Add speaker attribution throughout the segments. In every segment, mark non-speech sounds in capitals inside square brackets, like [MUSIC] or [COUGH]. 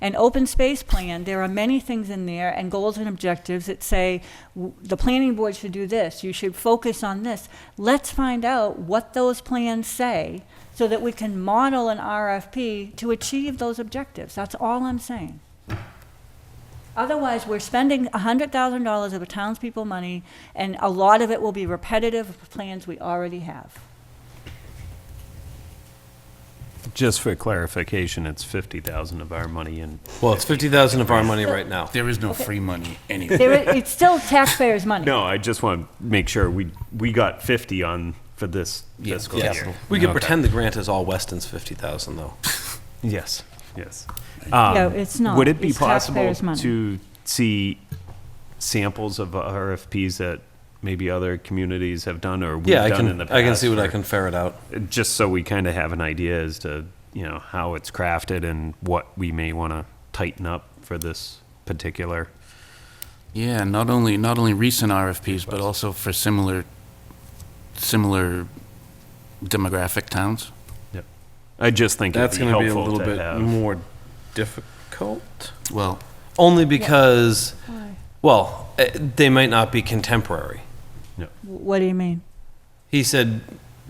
Speaker 1: An open space plan, there are many things in there and goals and objectives that say, w- the planning board should do this, you should focus on this. Let's find out what those plans say so that we can model an RFP to achieve those objectives. That's all I'm saying. Otherwise, we're spending $100,000 of the townspeople money, and a lot of it will be repetitive of plans we already have.
Speaker 2: Just for clarification, it's 50,000 of our money and
Speaker 3: Well, it's fifty thousand of our money right now.
Speaker 4: There is no free money anywhere.
Speaker 1: There i- It's still taxpayers' money.
Speaker 2: No, I just want to make sure we, we got 50 on for this fiscal
Speaker 3: Yes.
Speaker 2: year.
Speaker 3: We could
Speaker 4: Okay.
Speaker 3: pretend the grant is all Weston's fifty thousand though.
Speaker 2: Yes, yes.
Speaker 1: No,
Speaker 2: Um,
Speaker 1: it's not.
Speaker 2: Would it be
Speaker 1: It's
Speaker 2: possible
Speaker 1: taxpayers' money.
Speaker 2: to see samples of RFPs that maybe other communities have done or we've
Speaker 3: Yeah, I
Speaker 2: done in
Speaker 3: can,
Speaker 2: the past?
Speaker 3: I can see what I
Speaker 2: for-
Speaker 3: can ferret out.
Speaker 2: Just so we kind of have an idea as to, you know, how it's crafted and what we may want to tighten up for this particular.
Speaker 4: Yeah, not only, not only recent RFPs, but also for similar, similar demographic towns.
Speaker 2: Yep. I just think it'd
Speaker 3: That's
Speaker 2: be
Speaker 3: gonna be a
Speaker 2: helpful
Speaker 3: little
Speaker 2: to
Speaker 3: bit
Speaker 2: have.
Speaker 3: more difficult.
Speaker 4: Well,
Speaker 3: Only because, well, eh, they might not be contemporary.
Speaker 1: W- What do you mean?
Speaker 3: He said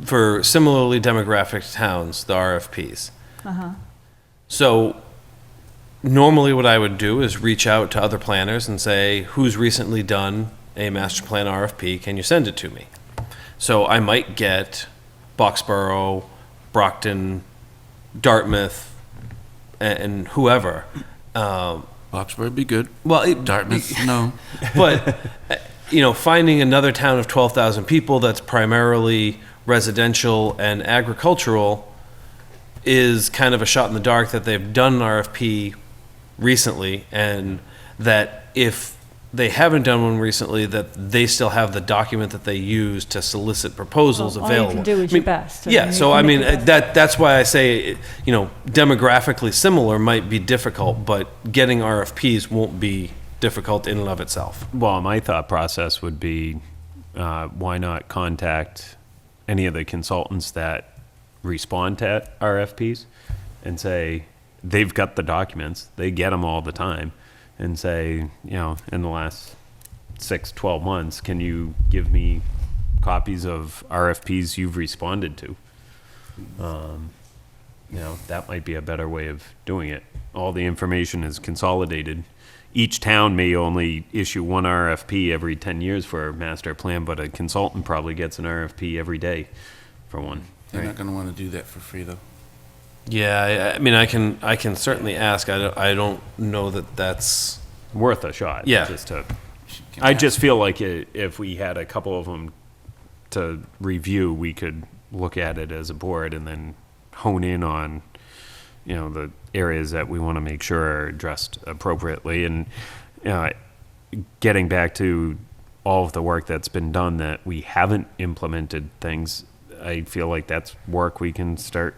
Speaker 3: for similarly demographic towns, the RFPs.
Speaker 1: Uh-huh.
Speaker 3: So normally what I would do is reach out to other planners and say, who's recently done a master plan RFP? Can you send it to me? So I might get Boxborough, Brockton, Dartmouth, a- and whoever. Um,
Speaker 4: Boxford would be good.
Speaker 3: well, it,
Speaker 4: [LAUGHS] Dartmouth, no.
Speaker 3: but uh, you know, finding another town of twelve thousand people that's primarily residential and agricultural is kind of a shot in the dark that they've done an RFP recently, and that if they haven't done one recently, that they still have the document that they use to solicit proposals
Speaker 1: Well, all you
Speaker 3: available.
Speaker 1: can do is
Speaker 3: I mean,
Speaker 1: your best. I
Speaker 3: Yeah,
Speaker 1: mean,
Speaker 3: so
Speaker 1: you
Speaker 3: I
Speaker 1: can make
Speaker 3: mean
Speaker 1: your best.
Speaker 3: uh, that that's why I say you know demographically similar might be difficult, but getting RFPs won't be difficult in and of itself.
Speaker 2: Well, my thought process would be, uh, why not contact any of the consultants that respond to RFPs and say, they've got the documents, they get them all the time, and say, you know, in the last six, 12 months, can you give me copies of RFPs you've responded to? Um, You know, that might be a better way of doing it. All the information is consolidated. Each town may only issue one RFP every 10 years for a master plan, but a consultant probably gets an RFP every day for one.
Speaker 4: They're not going to want to do that for free, though.
Speaker 3: Yeah, I, I mean, I can I can certainly ask. I don't, I don't know that that's
Speaker 2: Worth a shot.
Speaker 3: Yeah.
Speaker 2: Just to, I just feel like i if we had a couple of them to review, we could look at it as a board and then hone in on, you know, the areas that we want to make sure are addressed appropriately. And uh, getting back to all of the work that's been done that we haven't implemented things, I feel like that's work we can start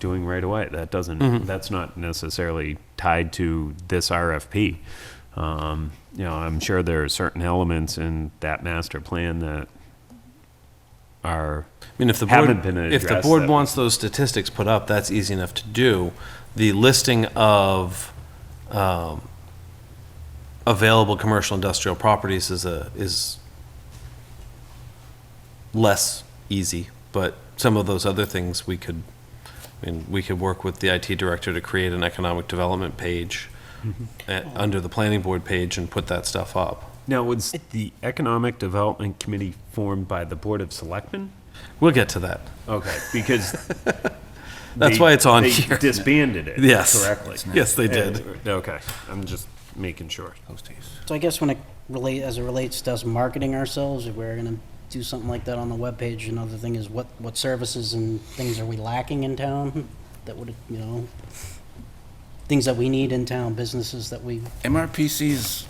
Speaker 2: doing right away. That doesn't, that's not necessarily tied to this RFP. Um, you know, I'm sure there are certain elements in that master plan that are
Speaker 3: I mean, if the
Speaker 2: Haven't
Speaker 3: board,
Speaker 2: been
Speaker 3: if the
Speaker 2: addressed
Speaker 3: board
Speaker 2: that-
Speaker 3: wants those statistics put up, that's easy enough to do. The listing of um, available commercial industrial properties is a, is less easy, but some of those other things we could, I mean, we could work with the IT director to create an economic development page
Speaker 2: Mm-hmm.
Speaker 3: uh, under the planning board page and put that stuff up.
Speaker 2: Now, was the Economic Development Committee formed by the Board of Selectmen?
Speaker 3: We'll get to that.
Speaker 2: Okay,
Speaker 3: [LAUGHS]
Speaker 2: because.
Speaker 3: That's
Speaker 2: they-
Speaker 3: why it's on
Speaker 2: they
Speaker 3: here.
Speaker 2: disbanded it.
Speaker 3: Yes.
Speaker 2: Correctly.
Speaker 3: Yes, they did.
Speaker 2: And- Okay, I'm just making sure.
Speaker 5: So I guess when it relate, as it relates to us marketing ourselves, if we're gonna do something like that on the webpage, another thing is what, what services and things are we lacking in town that would, you know, things that we need in town, businesses that we,
Speaker 4: MRPC's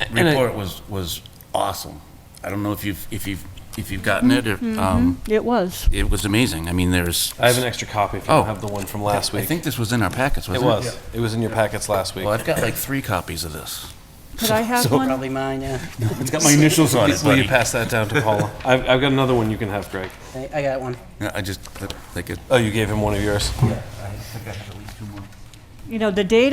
Speaker 3: and I-
Speaker 4: report was, was awesome. I don't know if you've, if you've, if you've gotten it, or, um,
Speaker 1: It was.
Speaker 4: it was amazing. I mean, there's.
Speaker 3: I have an extra copy if you
Speaker 4: Oh.
Speaker 3: don't have the one from last
Speaker 4: I
Speaker 3: week.
Speaker 4: think this was in our packets,
Speaker 3: It
Speaker 4: wasn't it?
Speaker 3: was. It was in your packets last week.
Speaker 4: Well, I've got like three copies of this.
Speaker 1: Could I have one?
Speaker 5: probably mine, yeah.
Speaker 4: It's got my initials on it,
Speaker 3: Will you pass that down to
Speaker 4: [LAUGHS]
Speaker 3: Paula? I've, I've got another one you can have, Greg.
Speaker 5: I, I got one.
Speaker 4: I just, like it.
Speaker 3: Oh, you gave him one of yours?
Speaker 1: You know, the data